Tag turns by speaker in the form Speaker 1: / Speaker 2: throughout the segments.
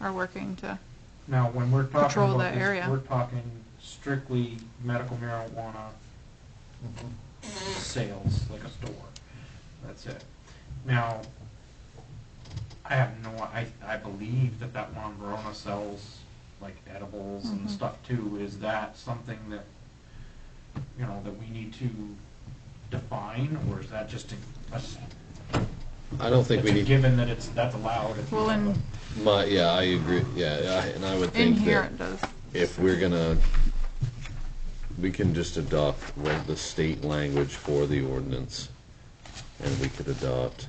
Speaker 1: are working to,
Speaker 2: Now, when we're talking
Speaker 1: Patrol
Speaker 2: about
Speaker 1: that
Speaker 2: this,
Speaker 1: area.
Speaker 2: we're talking strictly medical marijuana sales, like a store. That's it. Now, I have no, I, I believe that that one in Verona sells like edibles and
Speaker 1: Mhm.
Speaker 2: stuff too. Is that something that, you know, that we need to define or is that just a, that's,
Speaker 3: I don't think
Speaker 2: that's
Speaker 3: we
Speaker 2: a
Speaker 3: need,
Speaker 2: given that it's, that's allowed? if you
Speaker 1: well,
Speaker 2: have a-
Speaker 1: in,
Speaker 3: my, yeah, I agree, yeah, I- and I would
Speaker 1: in
Speaker 3: think
Speaker 1: here
Speaker 3: that
Speaker 1: it does.
Speaker 3: if we're gonna, we can just adopt what the state language for the ordinance, and we could adopt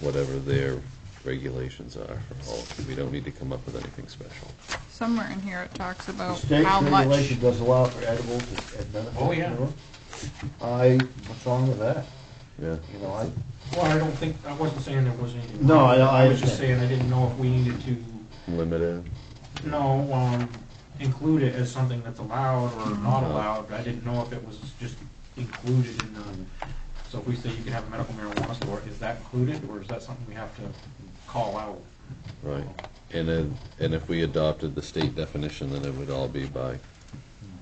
Speaker 3: whatever their regulations are for all, we don't need to come up with anything special.
Speaker 1: Somewhere in here it talks
Speaker 4: The
Speaker 1: about
Speaker 4: state
Speaker 1: how much,
Speaker 4: regulation does allow for edibles at- at benefit.
Speaker 2: Oh, yeah.
Speaker 4: you know? I, what's wrong with that?
Speaker 3: Yeah.
Speaker 4: You know, I,
Speaker 2: Well, I don't think, I wasn't saying there was anything.
Speaker 4: No, I- I
Speaker 2: was just saying,
Speaker 4: understand.
Speaker 2: I didn't know if we needed to,
Speaker 3: Limited,
Speaker 2: no, um, include it as something that's allowed or not
Speaker 3: Mm-hmm.
Speaker 2: allowed, but I didn't know if it was just included in the, so if we say you can have a medical marijuana store, is that included, or is that something we have to call out?
Speaker 3: right, and then, and if we adopted the state definition, then it would all be by,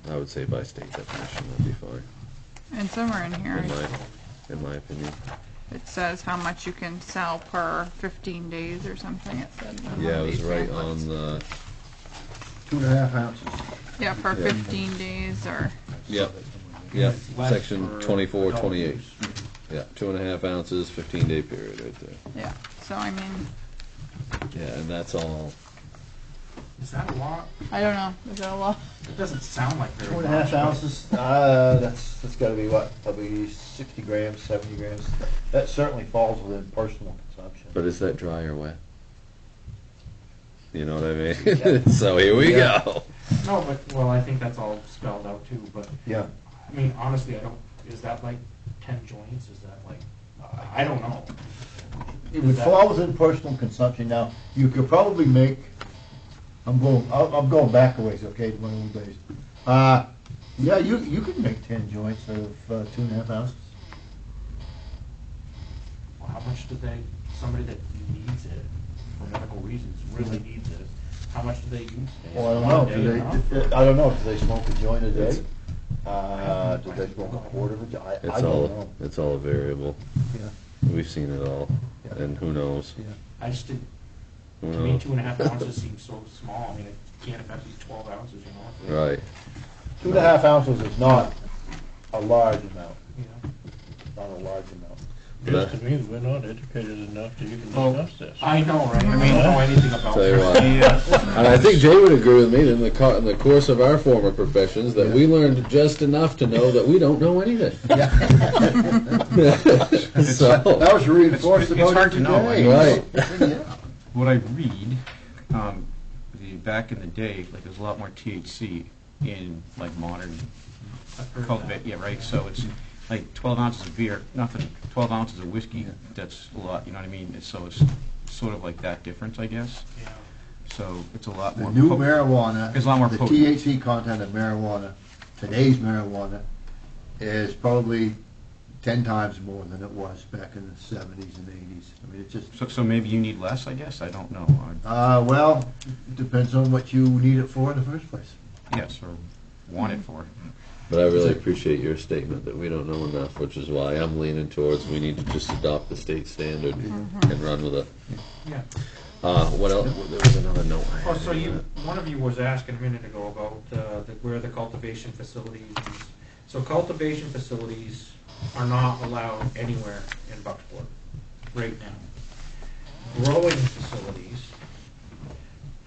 Speaker 3: I would say by state definition, that'd be fine,
Speaker 1: and somewhere in here
Speaker 3: in my, in my opinion.
Speaker 1: it says how much you can sell per fifteen days or something, it said. in one of
Speaker 3: Yeah, it was
Speaker 1: these
Speaker 3: right
Speaker 1: pamphlets.
Speaker 3: on the,
Speaker 4: two and a half ounces.
Speaker 1: Yeah, per
Speaker 3: yeah.
Speaker 1: fifteen days or,
Speaker 3: yep, yep,
Speaker 2: Less
Speaker 3: section
Speaker 2: for
Speaker 3: twenty-four,
Speaker 2: adult
Speaker 3: twenty-eight.
Speaker 2: use.
Speaker 3: Yeah, two and a half ounces, fifteen day period right there.
Speaker 1: yeah, so I mean,
Speaker 3: Yeah, and that's all.
Speaker 2: Is that a lot?
Speaker 1: I don't know, is that a lot?
Speaker 2: It doesn't sound like very
Speaker 4: Two
Speaker 2: much.
Speaker 4: and a half
Speaker 2: but-
Speaker 4: ounces, uh, that's, that's gotta be what, probably sixty grams, seventy grams. That certainly falls within personal consumption.
Speaker 3: But is that dry or wet? You know what I mean? So here we
Speaker 4: Yeah.
Speaker 3: go.
Speaker 2: No, but, well, I think that's all spelled out too, but
Speaker 4: Yeah,
Speaker 2: I mean, honestly, I don't, is that like ten joints, is that like, I I don't know.
Speaker 4: it would
Speaker 2: That-
Speaker 4: fall within personal consumption. Now, you could probably make, I'm going, I'm I'm going back a ways, okay, to one of the days. Uh, yeah, you, you could make ten joints of uh, two and a half ounces.
Speaker 2: Well, How much do they, somebody that needs it for medical reasons, really needs it, how much do they use?
Speaker 4: Mm-hmm. Well, I don't know,
Speaker 2: One day
Speaker 4: do
Speaker 2: enough?
Speaker 4: they, I don't know, do they smoke a joint a day?
Speaker 3: It's-
Speaker 4: Uh, do they smoke a quarter of a joint? I
Speaker 3: It's
Speaker 4: don't
Speaker 3: all,
Speaker 4: know.
Speaker 3: it's all variable.
Speaker 4: Yeah.
Speaker 3: We've seen it all.
Speaker 4: Yeah.
Speaker 3: And who knows?
Speaker 4: Yeah.
Speaker 2: I just didn't,
Speaker 3: Who
Speaker 2: to me,
Speaker 3: knows?
Speaker 2: two and a half ounces seems so small, I mean, it can't affect these twelve ounces, you know? if they-
Speaker 3: Right.
Speaker 4: Two and a half ounces is not a large amount,
Speaker 2: You know?
Speaker 4: not a large amount.
Speaker 3: But
Speaker 5: Just to me, we're not educated enough that you can
Speaker 2: Well,
Speaker 5: discuss this.
Speaker 2: I know, right, I mean, I don't know anything about.
Speaker 3: Tell you what. And I think Jay would agree with me in the, co- in the course of our former professions that we learned just enough to know that we don't know anything. so,
Speaker 4: That was reinforced
Speaker 6: It's- it's
Speaker 4: about
Speaker 6: hard
Speaker 4: it
Speaker 6: to know, I
Speaker 4: today.
Speaker 6: mean-
Speaker 3: Oh. right.
Speaker 6: what I read, um, the, back in the day, like, there's a lot more THC in, like, modern
Speaker 2: I've heard
Speaker 6: cultivate, yeah, right, so it's like twelve ounces of beer, nothing, twelve ounces of whiskey, that's a lot, you know what I mean? It's- So it's sort of like that difference, I guess,
Speaker 2: that, yeah.
Speaker 6: so it's a lot
Speaker 4: The
Speaker 6: more.
Speaker 4: new
Speaker 6: potent.
Speaker 4: marijuana,
Speaker 6: It's a lot more
Speaker 4: the
Speaker 6: potent.
Speaker 4: THC content of marijuana, today's marijuana, is probably ten times more than it was back in the seventies and eighties. I mean, it's just,
Speaker 6: So, so maybe you need less, I guess, I don't know, or,
Speaker 4: uh, well, it depends on what you need it for in the first place.
Speaker 6: yes, or want
Speaker 2: Hmm.
Speaker 6: it for.
Speaker 3: But I really appreciate your statement that we don't know enough, which is why I'm leaning towards we need to just adopt the state standard and run with it.
Speaker 2: Yeah.
Speaker 3: Uh, what else? There was another note. I
Speaker 2: Oh,
Speaker 3: had
Speaker 2: so
Speaker 3: in
Speaker 2: you,
Speaker 3: that.
Speaker 2: one of you was asking a minute ago about uh, the- where the cultivation facilities, so cultivation facilities are not allowed anywhere in Bucksport right now. Growing facilities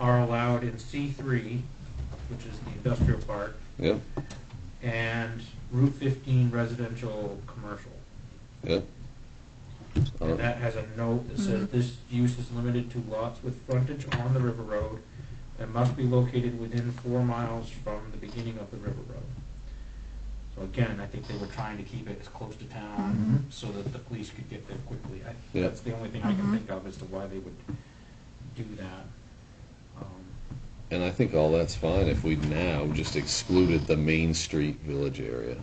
Speaker 2: are allowed in C three, which is the industrial park,
Speaker 3: Yep,
Speaker 2: and Route fifteen residential commercial.
Speaker 3: yep. Uh,
Speaker 2: And that has a note that says this use is limited to lots with frontage on the river road and must be located within four miles from the beginning of the river road. So again, I think they were trying to keep it as close to town so that the police could get there quickly. I-
Speaker 3: Yeah.
Speaker 2: That's the only thing I can
Speaker 1: Mhm.
Speaker 2: think of as to why they would do that. Um,
Speaker 3: And I think all that's fine if we now just excluded the Main Street Village area.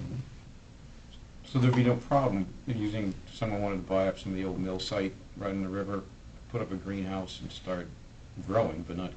Speaker 6: So there'd be no problem in using, someone wanted to buy up some of the old mill site right in the river, put up a greenhouse and start growing, but not